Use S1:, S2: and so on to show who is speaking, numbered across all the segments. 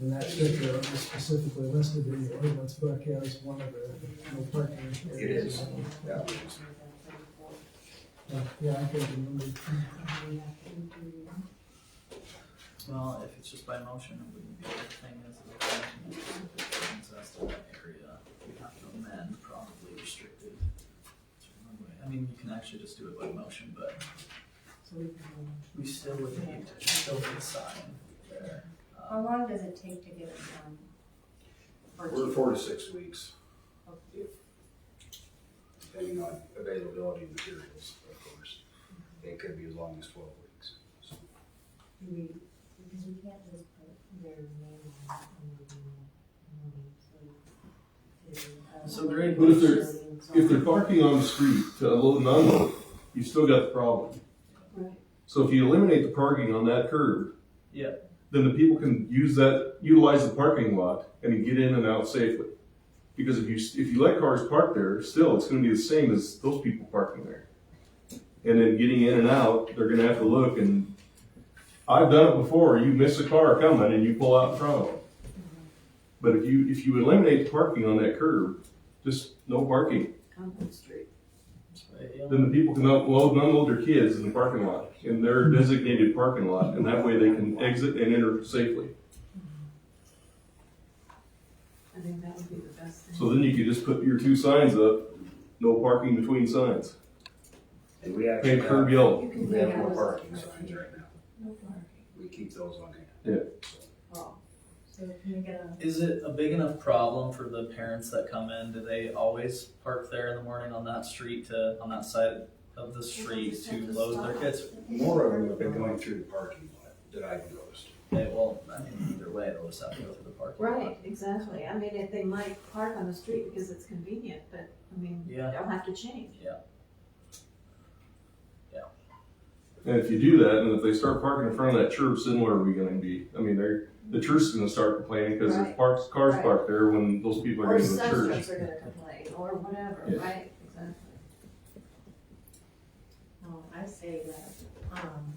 S1: And that figure is specifically listed in the ordinance book as one of the no parking areas.
S2: It is, yeah.
S1: Uh, Yeah, I can remember.
S3: Well, if it's just by motion, it wouldn't be a good thing as a motion. That's to that area, we have to amend probably restricted. I mean, you can actually just do it by motion, but we still would need to still need a sign there.
S4: How
S3: Um,
S4: long does it take to get it done? Or do
S2: We're
S4: you-
S2: four to six weeks. if- Depending on availability of materials, of course. It could be as long as twelve weeks. so.
S4: do we, because we can't just put their name on it and then, um,
S3: So great.
S5: But if If they're parking on the street to unload and unload, you've still got the problem.
S4: Right.
S5: So if you eliminate the parking on that curb.
S3: Yeah.
S5: Then the people can use that, utilize the parking lot and get in and out safely. Because if you, if you let cars park there, still, it's gonna be the same as those people parking there. And then getting in and out, they're gonna have to look and, I've done it before, you miss a car coming and you pull out in front of them. But if you, if you eliminate the parking on that curb, just no parking
S3: but, yeah.
S5: then the people can unload and unload their kids in the parking lot, in their designated parking lot, and that way they can exit and enter safely.
S6: I think that would be the best thing.
S5: So then you could just put your two signs up, no parking between signs,
S2: And we actually
S5: paint curb
S2: have,
S5: yellow.
S6: You can
S2: we
S6: do
S2: have
S6: that
S2: no
S6: with-
S2: parking signs right now.
S6: No parking.
S2: We keep those on hand.
S6: Oh,
S4: So can you get a,
S3: Is it a big enough problem for the parents that come in? Do they always park there in the morning on that street to, on that side of the street to load their kids?
S2: More of them have been going through the parking lot that I've noticed.
S3: They, well, I mean, either way, they'll just have to go through the parking lot.
S6: right, exactly. I mean, if they might park on the street because it's convenient, but, I mean,
S3: Yeah.
S6: they'll have to change.
S5: And if you do that, and if they start parking in front of that church, then what are we gonna be? I mean, they're, the church is gonna start complaining because there's
S6: Right.
S5: parks, cars
S6: Right.
S5: parked there when those people are
S6: Or
S5: in the church.
S6: substrates are gonna complain, or whatever,
S5: Yeah.
S6: right, exactly.
S4: no, I say that, um,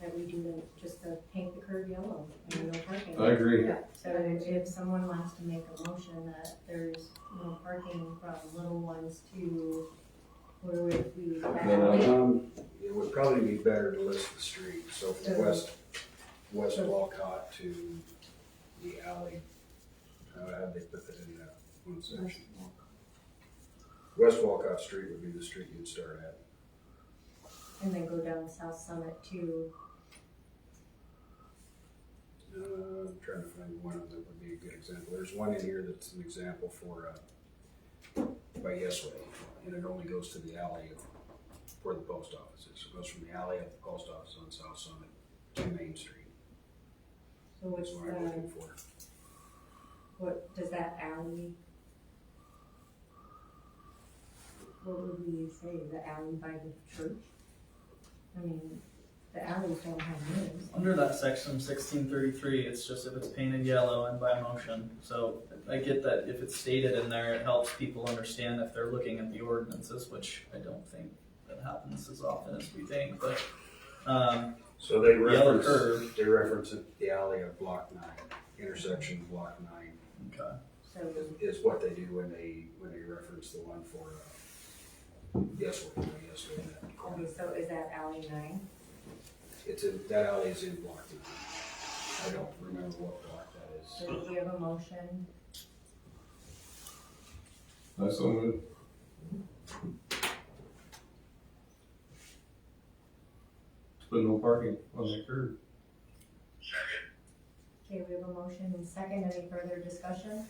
S4: that we do the, just the paint the curb yellow and no parking.
S5: I agree.
S4: So if someone wants to make a motion that there's no parking from little ones to, where would we?
S2: Um, it would probably be better to list the street, so from west, west Walcott to the alley. How have they put that in that one section? West Walcott Street would be the street you'd start at.
S4: And then go down South Summit to,
S2: Uh, I'm trying to find one of them would be a good example. There's one in here that's an example for, uh, by Yesway, and it only goes to the alley of, for the post office. It goes from the alley up the post office on South Summit to Main Street.
S4: so which,
S2: That's what I'm
S4: uh,
S2: looking for.
S4: what, does that alley? What would we say, the alley by the church? I mean, the alleys don't have names.
S3: Under that section sixteen thirty-three, it's just if it's painted yellow and by motion, so I get that if it's stated in there, it helps people understand if they're looking at the ordinances, which I don't think that happens as often as we think, but, um,
S2: So they
S3: yellow
S2: reference,
S3: curve,
S2: they reference it, the alley of block nine, intersection of block nine
S3: okay,
S4: So,
S2: is what they do when they, when they reference the one for, uh, Yesway, by Yesway. that corner.
S4: okay, so is that alley nine?
S2: It's in, that alley is in block nine. I don't remember what block that is.
S4: So do we have a motion?
S5: I so moved. To Put no parking on that curb.
S4: Okay, we have a motion and second, any further discussion?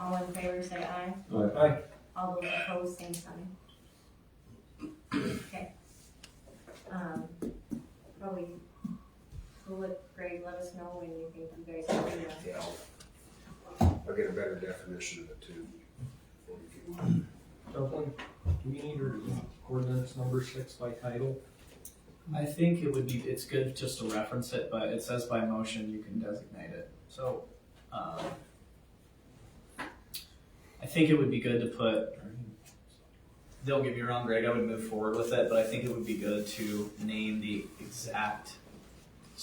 S4: All in favor, say aye.
S5: Aye.
S4: All those opposed, same sign. Okay. Um, probably, we'll let Greg let us know when you think you guys can do that.
S2: Yeah, I'll, I'll get a better definition of it too. Or if you want.
S7: Dumpling, do we need to read ordinance number six by title?
S3: I think it would be, it's good just to reference it, but it says by motion, you can designate it, so, um, I think it would be good to put, don't get me wrong, Greg, I would move forward with it, but I think it would be good to name the exact